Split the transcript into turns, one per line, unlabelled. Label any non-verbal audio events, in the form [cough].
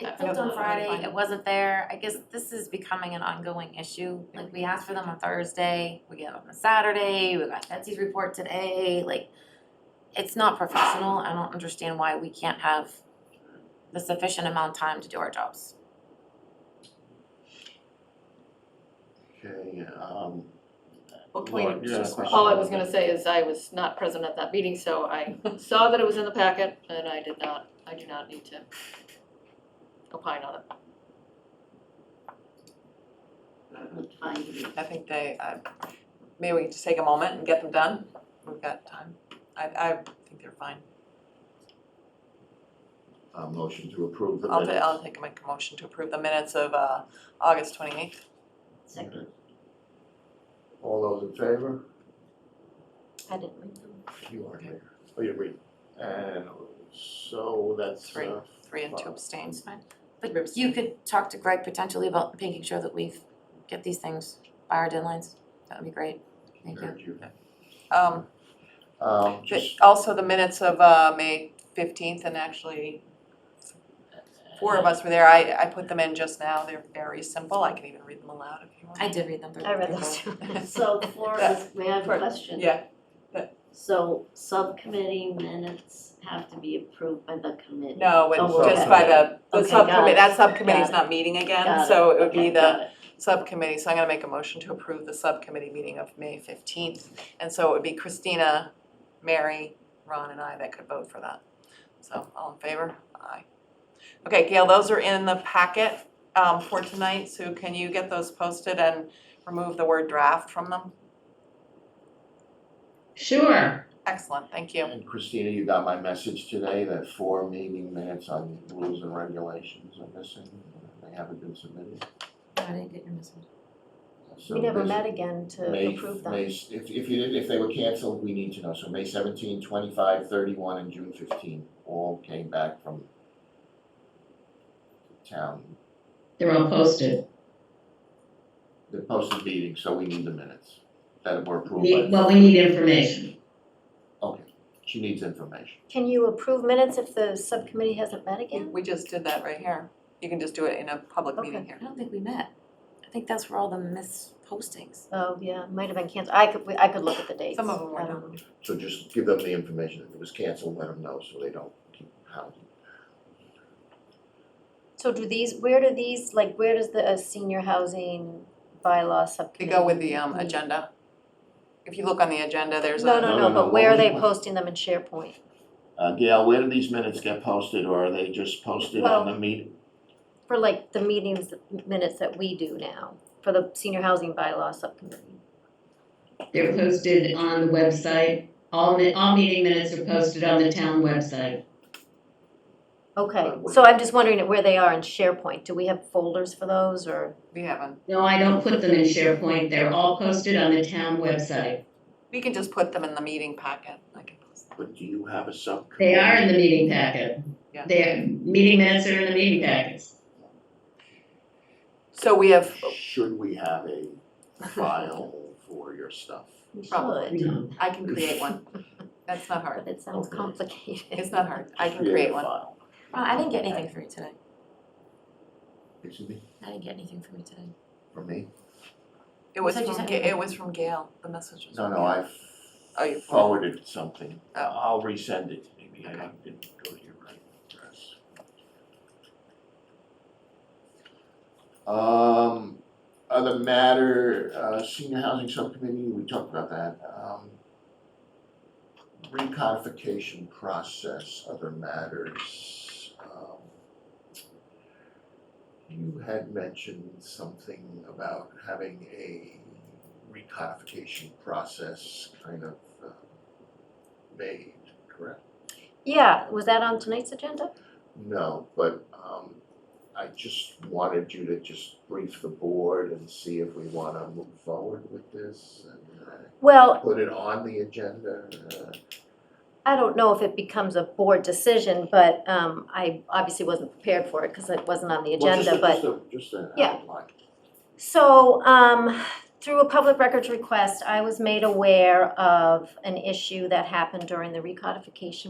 looked
Yep.
on Friday, it wasn't there, I guess this is becoming an ongoing issue, like we asked for them on Thursday, we get them on Saturday, we got Betsy's report today, like it's not professional, I don't understand why we can't have the sufficient amount of time to do our jobs.
Okay, um,
Well, can we-
Laura, you had a question?
Oh,
All I was gonna say is I was not present at that meeting, so I saw that it was in the packet and I did not, I do not need to opine on it.
I think they, uh, maybe we can just take a moment and get them done. We've got time. I, I think they're fine.
a Uh, motion to approve the
I'll, ta-
minutes.
I'll take a make a motion to approve the minutes of uh, August twenty-eighth.
Okay. All those in favor?
I didn't read them.
You are here. Oh, you're reading. And so that's
Three.
uh,
Three and two
Wow.
abstains.
But you could talk to Greg potentially about making sure that we've get these things by our deadlines, that would be great, thank you.
heard you.
Um,
Um,
but
just.
also the minutes of uh, May fifteenth, and actually four of us were there. I, I put them in just now. They're very simple. I can even read them aloud if you want.
I did read them, they're
I read
they're
those
cool.
too.
So
Flora, may I have a question?
Yeah,
So subcommittee minutes have to be approved by the committee?
[laughs] no,
Oh,
it- just by the, the
Okay, got
subcommittee,
it.
that subcommittee's
Got
not meeting again,
Got
so it would be
Okay,
the
got it.
subcommittee, so I'm gonna make a motion to approve the subcommittee meeting of May fifteenth. And so it would be Christina, Mary, Ron, and I that could vote for that. So, all in favor? Aye. Okay, Gail, those are in the packet, um, for tonight, so can you get those posted and remove the word draft from them?
Sure.
Excellent, thank you.
And Christina, you got my message today that four meeting minutes on rules and regulations are missing. They haven't been submitted.
I didn't get your message.
So
We never
this-
met again to
May,
approve
May,
them.
if if you did, if they were canceled, we need to know, so May 17, 25, 31, and June fifteen, all came back from town,
They're all posted.
the posted meeting, so we need the minutes that were
We-
approved by,
Well, we need information.
okay, she needs information.
Can you approve minutes if the subcommittee hasn't met again?
We just did that right here. You can just do it in a public meeting
Okay.
here.
I don't think we met. I think that's where all the mispostings.
Oh, yeah, might have been canceled. I could, I could look at the dates.
Some of them were
I don't
done.
know.
So just give them the information, if it was canceled, let them know, so they don't keep hounding.
So do these, where do these, like, where does the uh, senior housing bylaw
They
subcommittee?
go with the, um, agenda. If you look on the agenda, there's a.
No,
No,
no,
no,
no,
no,
but where are
what
they
we-
posting them in SharePoint?
Uh, Gail, where do these minutes get posted, or are they just posted on the meet,
For like the meetings, the minutes that we do now, for the senior housing bylaw subcommittee.
They're posted on the website. All, mi- all meeting minutes are posted on the town website.
Okay,
Uh, what-
so I'm just wondering where they are in SharePoint. Do we have folders for those or?
We haven't.
No, I don't put them in SharePoint. They're all posted on the town website.
We can just put them in the meeting packet. I can post them.
but do you have a subcommittee?
They are in the meeting packet.
Yeah.
They're, meeting minutes are in the meeting packets.
So we have,
Should we have a
[laughs]
file for your stuff?
We
Probably.
should,
No.
I can create one. That's not
But
hard.
it sounds
Okay.
complicated.
It's not hard. I can
Create a
create one.
file.
Well, I didn't get anything from you today.
Excuse me,
I didn't get anything from you today.
for me?
It was
Said you
from,
sent
Ga-
me
it was from Gail. The message was
No,
from
no,
Gail.
I
Oh, you-
forwarded something.
Oh.
I'll resend it, maybe I
Okay.
didn't go to your right address. Um, other matter, uh, senior housing subcommittee, we talked about that, um. Recodification process, other matters, um. You had mentioned something about having a recodification process kind of uh, made, correct?
Yeah, was that on tonight's agenda?
No, but um I just wanted you to just brief the board and see if we wanna move forward with this and uh,
Well,
put it on the agenda. uh,
I don't know if it becomes a board decision, but um I obviously wasn't prepared for it because it wasn't on the
well, just
agenda,
a-
but
Just a, just an
Yeah.
outline.
So, um, through a public records request, I was made aware of an issue that happened during the recodification